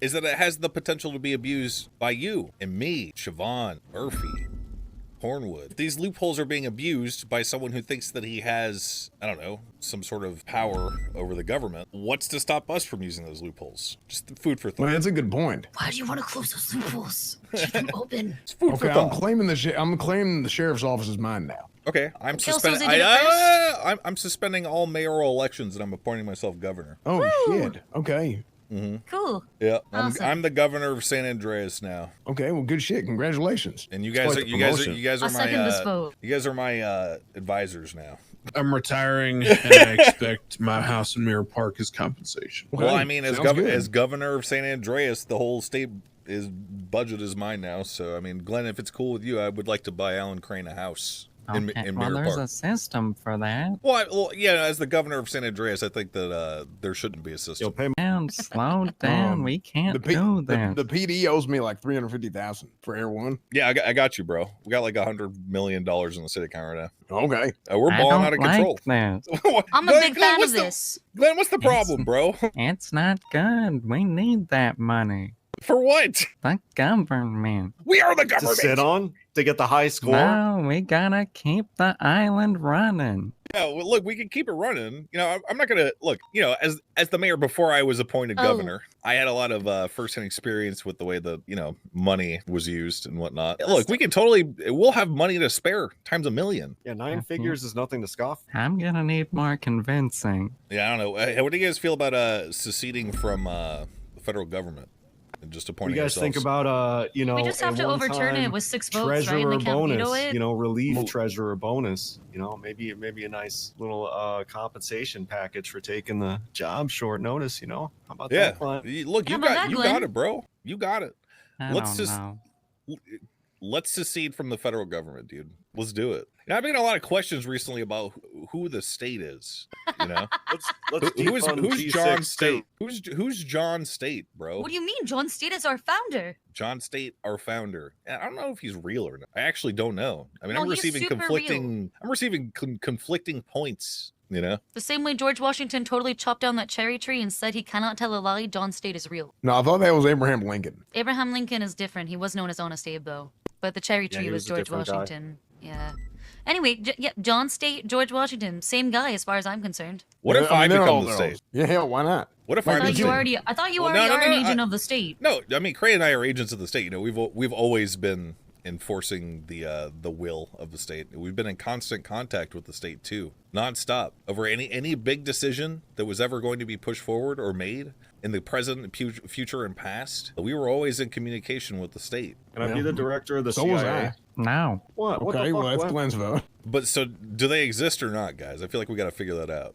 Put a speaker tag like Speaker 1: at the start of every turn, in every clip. Speaker 1: is that it has the potential to be abused by you and me, Siobhan, Murphy, Hornwood. These loopholes are being abused by someone who thinks that he has, I don't know, some sort of power over the government. What's to stop us from using those loopholes? Just food for
Speaker 2: Well,
Speaker 1: thought.
Speaker 2: that's a good point.
Speaker 3: Why do you want to close those loopholes? Keep them open.
Speaker 1: It's food
Speaker 2: Okay, I'm claiming the sh- I'm claiming the sheriff's office is mine now.
Speaker 1: Okay, I'm
Speaker 3: Kill
Speaker 1: suspending.
Speaker 3: Susie,
Speaker 1: I,
Speaker 3: do it
Speaker 1: I, I'm, I'm suspending all mayoral elections, and I'm appointing myself governor.
Speaker 2: Oh shit. Okay.
Speaker 3: Cool.
Speaker 1: Yeah, I'm,
Speaker 3: Awesome.
Speaker 1: I'm the governor of San Andreas now,
Speaker 2: Okay. Well, good shit. Congratulations.
Speaker 1: and you
Speaker 2: It's
Speaker 1: guys,
Speaker 2: quite
Speaker 1: are,
Speaker 2: the
Speaker 1: you guys, are,
Speaker 2: promotion.
Speaker 1: you guys
Speaker 3: I
Speaker 1: are my,
Speaker 3: second this
Speaker 1: uh,
Speaker 3: vote.
Speaker 1: you guys are my uh, advisors now.
Speaker 4: I'm retiring, and I expect my house in Mirror Park as compensation.
Speaker 2: Okay,
Speaker 1: Well, I mean, as
Speaker 2: sounds
Speaker 1: gov-
Speaker 2: good.
Speaker 1: as governor of San Andreas, the whole state is budget is mine now. So, I mean, Glenn, if it's cool with you, I would like to buy Alan Crane a house in,
Speaker 5: Okay,
Speaker 1: in
Speaker 5: Oh, well,
Speaker 1: Mirror
Speaker 5: there's
Speaker 1: Park.
Speaker 5: a system for that.
Speaker 1: Well, I, well, yeah, as the governor of San Andreas, I think that uh, there shouldn't be a system.
Speaker 2: Yo, pay me-
Speaker 5: And slow down.
Speaker 2: Um,
Speaker 5: we can't
Speaker 2: the, P-
Speaker 5: do
Speaker 2: the,
Speaker 5: that.
Speaker 2: the PD owes me like three hundred fifty thousand for Air One.
Speaker 1: Yeah, I got, I got you, bro. We got like a hundred million dollars in the city account right
Speaker 2: Okay.
Speaker 1: now. Uh, we're
Speaker 5: I
Speaker 1: balling
Speaker 5: don't
Speaker 1: out of
Speaker 5: like
Speaker 1: control.
Speaker 5: that.
Speaker 1: What-
Speaker 3: I'm a
Speaker 1: Glenn-
Speaker 3: big
Speaker 1: Glenn,
Speaker 3: fan of
Speaker 1: what's the-
Speaker 3: this.
Speaker 1: Glenn, what's the
Speaker 5: Yes.
Speaker 1: problem, bro?
Speaker 5: It's not good. We need that money.
Speaker 1: For what?
Speaker 5: The government.
Speaker 1: We are the
Speaker 6: to sit
Speaker 1: government.
Speaker 6: on to get the high score.
Speaker 5: No, we gotta keep the island running.
Speaker 1: Yeah, well, look, we can keep it running. You know, I- I'm not gonna look. You know, as as the mayor before I was appointed
Speaker 3: Oh.
Speaker 1: governor, I had a lot of uh, firsthand experience with the way the you know money was used and whatnot. Look, we can totally. We'll have money to spare times a million.
Speaker 6: Yeah, 9
Speaker 5: Mhm.
Speaker 6: figures is nothing to scoff.
Speaker 5: I'm gonna need more convincing.
Speaker 1: Yeah, I don't know. Uh, What do you guys feel about uh seceding from uh the federal government and just
Speaker 6: You
Speaker 1: appointing?
Speaker 6: guys think
Speaker 1: yourselves?
Speaker 6: about uh, you know,
Speaker 3: we just have
Speaker 6: a
Speaker 3: to overturn it
Speaker 6: one-time
Speaker 3: with six votes, right? And
Speaker 6: treasurer
Speaker 3: they can't veto
Speaker 6: bonus.
Speaker 3: it.
Speaker 6: You know,
Speaker 1: Well-
Speaker 6: relief treasurer bonus. You know, maybe maybe a nice little uh compensation package for taking the job short notice. You know, how about
Speaker 1: Yeah,
Speaker 6: that? Clint?
Speaker 1: you- look,
Speaker 3: How
Speaker 1: you
Speaker 3: about
Speaker 1: got
Speaker 3: that,
Speaker 1: you
Speaker 3: Glenn?
Speaker 1: got it, bro. You got it.
Speaker 5: I
Speaker 1: Let's
Speaker 5: don't
Speaker 1: just-
Speaker 5: know.
Speaker 1: let's secede from the federal government, dude. Let's do it. And I've been getting a lot of questions recently about who, who the state is. You know,
Speaker 6: Let's
Speaker 1: who,
Speaker 6: let's
Speaker 1: who is
Speaker 6: defund
Speaker 1: who's
Speaker 6: G6
Speaker 1: John
Speaker 6: too.
Speaker 1: State? Who's who's John State, bro?
Speaker 3: What do you mean? John State is our founder.
Speaker 1: John State, our founder. And I don't know if he's real or not. I actually don't know. I mean,
Speaker 3: No,
Speaker 1: I'm
Speaker 3: he's
Speaker 1: receiving
Speaker 3: super real.
Speaker 1: conflicting. I'm receiving con- conflicting points. You know,
Speaker 3: The same way George Washington totally chopped down that cherry tree and said he cannot tell a lie, John State is real.
Speaker 2: No, I thought that was Abraham Lincoln.
Speaker 3: Abraham Lincoln is different. He was known as Honest Abe, though. But the cherry
Speaker 6: Yeah,
Speaker 3: tree
Speaker 6: he
Speaker 3: was,
Speaker 6: was a
Speaker 3: George
Speaker 6: different guy.
Speaker 3: Washington. Yeah. Anyway, J- yeah, John State, George Washington, same guy as far as I'm concerned.
Speaker 1: what if I,
Speaker 2: mean, they're
Speaker 1: become
Speaker 2: all
Speaker 1: the
Speaker 2: their
Speaker 1: state?
Speaker 2: own. Yeah, hell, why not?
Speaker 1: What if
Speaker 3: I
Speaker 1: I
Speaker 2: Fine,
Speaker 3: thought
Speaker 1: become
Speaker 3: you
Speaker 2: Lincoln.
Speaker 3: already, I thought you
Speaker 1: Well, no,
Speaker 3: already
Speaker 1: no,
Speaker 3: are an
Speaker 1: no, I-
Speaker 3: agent of the state.
Speaker 1: No, I mean Cray and I are agents of the state. You know, we've al- we've always been enforcing the uh, the will of the state. We've been in constant contact with the state too, nonstop, over any any big decision that was ever going to be pushed forward or made in the present, pu- future, and past. We were always in communication with the state.
Speaker 6: Can I be the director of the
Speaker 2: So
Speaker 6: CIA?
Speaker 2: was I.
Speaker 5: No.
Speaker 6: What? What
Speaker 2: Okay,
Speaker 6: the fuck?
Speaker 2: well, that's
Speaker 6: what?
Speaker 2: Glenn's vote.
Speaker 1: But so, do they exist or not, guys? I feel like we got to figure that out.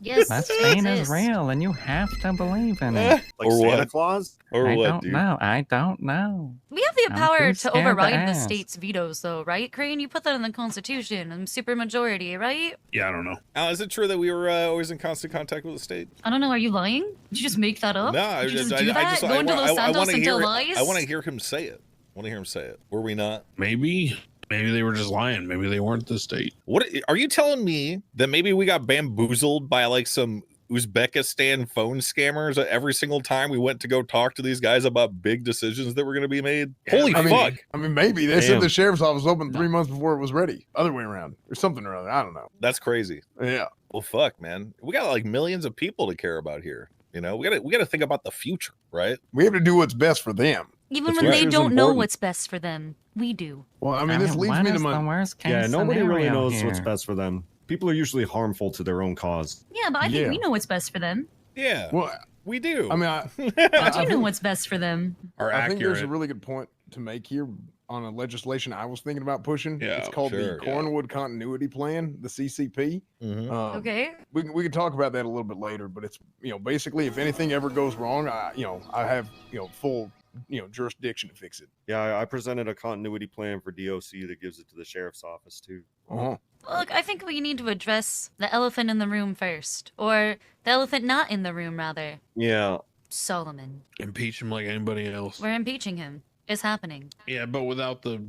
Speaker 3: Yes,
Speaker 5: That
Speaker 3: they
Speaker 5: Spain is
Speaker 3: exist.
Speaker 5: real and you have to believe in it.
Speaker 6: Like
Speaker 1: Or
Speaker 6: Santa
Speaker 1: what?
Speaker 6: Claus?
Speaker 1: Or
Speaker 5: I
Speaker 1: what,
Speaker 5: don't
Speaker 1: dude?
Speaker 5: know. I don't know.
Speaker 3: We have the
Speaker 5: I'm
Speaker 3: power
Speaker 5: too
Speaker 3: to
Speaker 5: scared to
Speaker 3: override the
Speaker 5: ask.
Speaker 3: state's vetoes, though, right, Crane? You put that in the Constitution, and supermajority, right?
Speaker 4: Yeah, I don't know.
Speaker 1: Al, is it true that we were uh, always in constant contact with the state?
Speaker 3: I don't know. Are you lying? Did you just make that up?
Speaker 1: no, I
Speaker 3: Did Oh, you
Speaker 1: just,
Speaker 3: just
Speaker 1: I,
Speaker 3: do
Speaker 1: I
Speaker 3: that?
Speaker 1: just
Speaker 3: Go
Speaker 1: I,
Speaker 3: into
Speaker 1: wa-
Speaker 3: Los
Speaker 1: I, I
Speaker 3: Santos
Speaker 1: want to
Speaker 3: and
Speaker 1: hear
Speaker 3: tell
Speaker 1: it-
Speaker 3: lies?
Speaker 1: I want to hear him say it. I want to hear him say it. Were we not?
Speaker 4: Maybe, maybe they were just lying. Maybe they weren't the state.
Speaker 1: What are you telling me that maybe we got bamboozled by like some Uzbekistan phone scammers every single time we went to go talk to these guys about big decisions that were going to be made?
Speaker 4: Yeah,
Speaker 1: Holy
Speaker 2: I mean,
Speaker 1: fuck,
Speaker 2: I mean, maybe they said
Speaker 4: Damn.
Speaker 2: the sheriff's office opened three months before it was ready. Other way around, or something or other. I don't know.
Speaker 1: that's crazy.
Speaker 2: Yeah.
Speaker 1: Well, fuck, man, we got like millions of people to care about here. You know, we gotta we gotta think about the future, right?
Speaker 2: We have to do what's best for them.
Speaker 3: Even
Speaker 1: That's
Speaker 3: when
Speaker 1: right.
Speaker 3: they
Speaker 2: It's
Speaker 3: don't know
Speaker 2: important.
Speaker 3: what's best for them, we do.
Speaker 2: Well, I mean, this leads
Speaker 5: what
Speaker 2: me to
Speaker 5: is the
Speaker 2: my.
Speaker 5: worst case
Speaker 6: Yeah, nobody really
Speaker 5: scenario
Speaker 6: knows what's
Speaker 5: here?
Speaker 6: best for them. People are usually harmful to their own cause.
Speaker 3: Yeah, but I think
Speaker 2: Yeah.
Speaker 3: we know what's best for them.
Speaker 1: Yeah,
Speaker 2: Well,
Speaker 1: we do.
Speaker 2: I mean, I,
Speaker 3: I
Speaker 2: I,
Speaker 3: do
Speaker 2: I
Speaker 3: know
Speaker 2: think-
Speaker 3: what's best for them.
Speaker 4: Are
Speaker 2: I think there's a
Speaker 4: accurate.
Speaker 2: really good point to make here on a legislation I was thinking about pushing.
Speaker 4: Yeah,
Speaker 2: it's called
Speaker 1: sure,
Speaker 2: the
Speaker 1: yeah.
Speaker 2: Cornwood Continuity Plan, the CCP.
Speaker 1: Mhm.
Speaker 2: Um,
Speaker 3: Okay.
Speaker 2: We can, we can talk about that a little bit later, but it's you know basically if anything ever goes wrong, I you know I have you know full you know jurisdiction to fix it.
Speaker 6: Yeah, I- I presented a continuity plan for DOC that gives it to the sheriff's office too.
Speaker 2: Uh-huh.
Speaker 3: Look, I think we need to address the elephant in the room first, or the elephant not in the room, rather.
Speaker 6: Yeah,
Speaker 3: Solomon.
Speaker 4: Impeach him like anybody else.
Speaker 3: We're impeaching him. It's happening.
Speaker 4: Yeah, but without the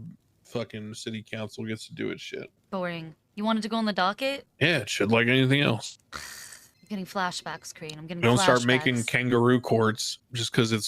Speaker 4: fucking city council gets to do its shit.
Speaker 3: Boring. You wanted to go on the docket?
Speaker 4: Yeah, it's shit like anything else.
Speaker 3: I'm getting flashbacks, Crane. I'm getting
Speaker 4: Don't
Speaker 3: flashbacks.
Speaker 4: start making kangaroo courts just because it's